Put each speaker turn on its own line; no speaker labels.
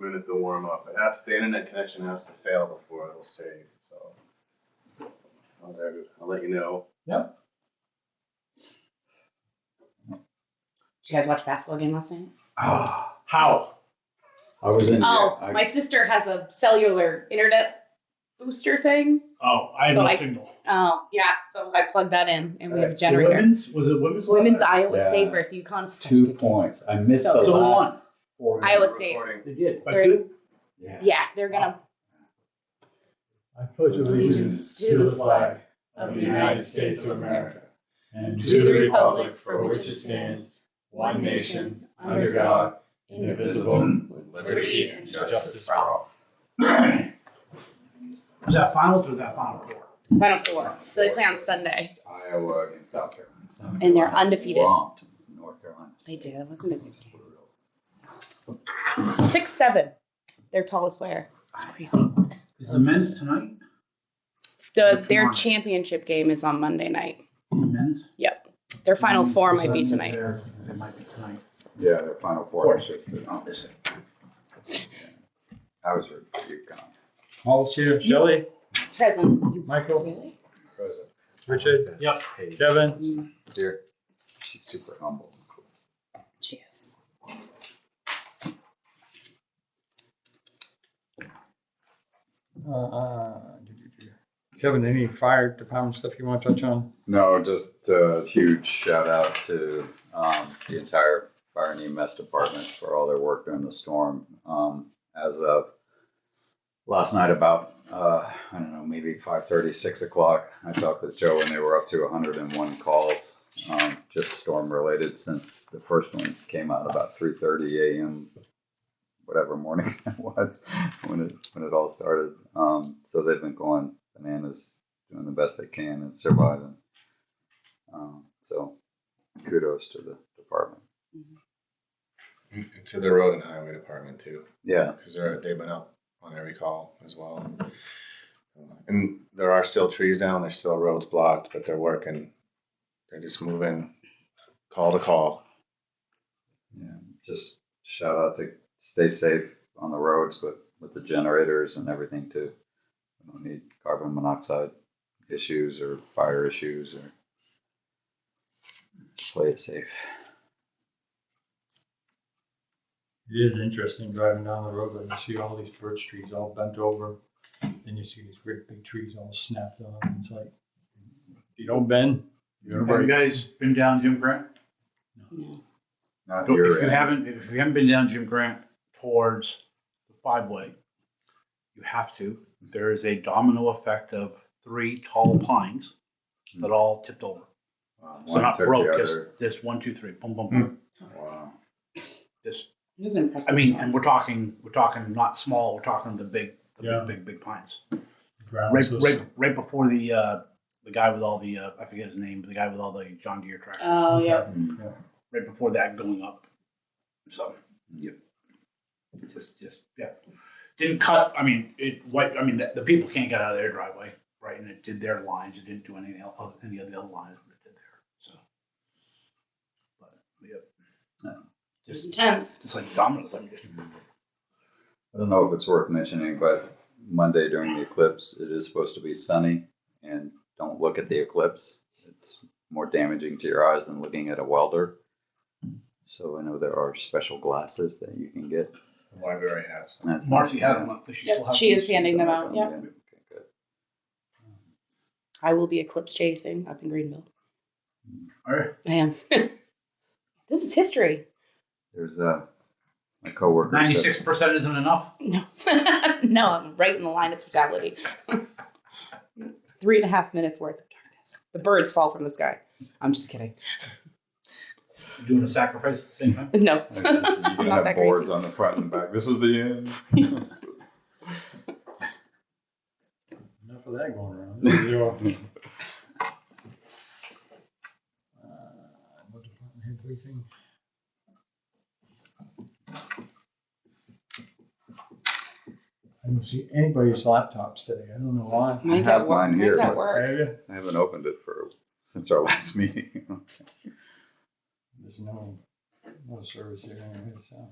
started to warm up. It has, the internet connection has to fail before it'll save, so. I'll, let you- I'll let you know.
Did you guys watch basketball game last night?
Ah,
How?
I was in.
Oh,
I-
my sister has a cellular internet booster thing.
Oh, I have
So
no
I-
signal.
Oh, yeah. So I plugged that in and we have a
The
generator.
Women's was it women's?
Women's
last
Iowa
Yeah.
State versus UConn. is such a
two
good game.
points. I missed
So-
the
So who
last.
won?
Four
Iowa
games.
State.
Recording.
night? They did. But
They're-
dude,
Yeah.
Yeah, they're gonna.
I pledge allegiance to the flag
of
of
the
the
United
United States of America and to the republic for which it stands, one nation, under God, indivisible.
Mm-hmm.
With
liberty and
justice for all. Was that finals or was that final four?
Final four. So they play on Sunday,
It's Iowa against South Carolina.
South
and they're
Carolina
undefeated.
Romped North Carolina.
They did. It wasn't a good game. Six seven. Their tallest player. It's crazy.
Is the men's tonight?
The their
Tomorrow.
championship game is on Monday night.
Men's?
Their final
Mm,
four might be
Doesn't
tonight.
matter. It might be tonight.
Yeah, their final four. I should say. Oh, this is- I was your UConn.
Paul's here, Shelley,
Present.
Michael,
Really?
Present.
Richard,
Yep.
Kevin.
Here. She's super humble.
Cheers.
Uh, Kevin, any fire department stuff you want to touch on?
No, just a huge shout out to um, the entire fire and EMS department for all their work during the storm. Um, as of last night, about uh, I don't know, maybe 5:30, 6 o'clock, I talked with Joe, and they were up to 101 calls, um, just storm related, since the first one came out about 3:30 a.m. Whatever morning that was when it when it all started. Um, so they've been going bananas, doing the best they can and surviving. Um, so kudos to the department.
And To the road and highway department too,
Yeah.
because they're, they've been up on every call as well. And there are still trees down, there's still roads blocked, but they're working. They're just moving call to call.
Yeah. Just shout out to stay safe on the roads, but with the generators and everything too. We don't need carbon monoxide issues or fire issues or just play it safe.
It is interesting driving down the road and you see all these birch trees all bent over. Then you see these great big trees all snapped on. It's like, if you don't bend, you're
Have you
going to
guys been down Jim Grant?
Not
If
your
you
end.
haven't, if you haven't been down Jim Grant towards the five way, you have to. There is a domino effect of three tall pines that all tipped over.
Wow,
So
Hmm. Uh, one
not
took
broke,
the
just
other. Hmm.
this one, two, three, boom, boom, boom.
Wow.
This,
It was an impressive.
I mean,
song.
and we're talking, we're talking not small, we're talking the big, the
Yeah.
big, big, big pines.
ground.
Right,
so-
right, right before the uh, the guy with all the uh, I forget his name, but the guy with all the John Deere tractors.
Oh yeah.
Hmm.
right before that going up. So.
Yep.
Just, just, yeah. Didn't cut, I mean, it, what, I mean, the, the people can't get out of their driveway, right? And it did their lines. It didn't do any, el- any of the other lines, but it did there, so. But, yeah.
Yeah.
It
Just,
was intense.
just like dominoes, I mean, just-
I don't know if it's worth mentioning, but Monday during the eclipse, it is supposed to be sunny, and don't look at the eclipse. It's more damaging to your eyes than looking at a welder. So I know there are special glasses that you can get.
The library has some.
That's-
Marcy had them up, but she still
Yep,
has.
she
them.
is handing them out. Yeah.
Okay, good.
I will be eclipse chasing up in Greenville.
All right.
I am. this is history.
There's a my coworker. said-
Ninety-six percent isn't enough.
No, no, I'm right in the line of totality. Three and a half minutes worth of darkness. The birds fall from the sky. I'm just kidding.
Doing a sacrifice at the same time.
No,
You're
I'm
gonna
not that
have boards
crazy.
on the front and back. This is the end.
Enough of that going around. Zero. Uh, what department head we think? I don't see anybody's laptops today. I don't know why.
Mine's
I have
at work.
mine here,
Mine's at
but-
work.
Have you?
I haven't opened it for since our last meeting.
There's no, no service here anyway, so.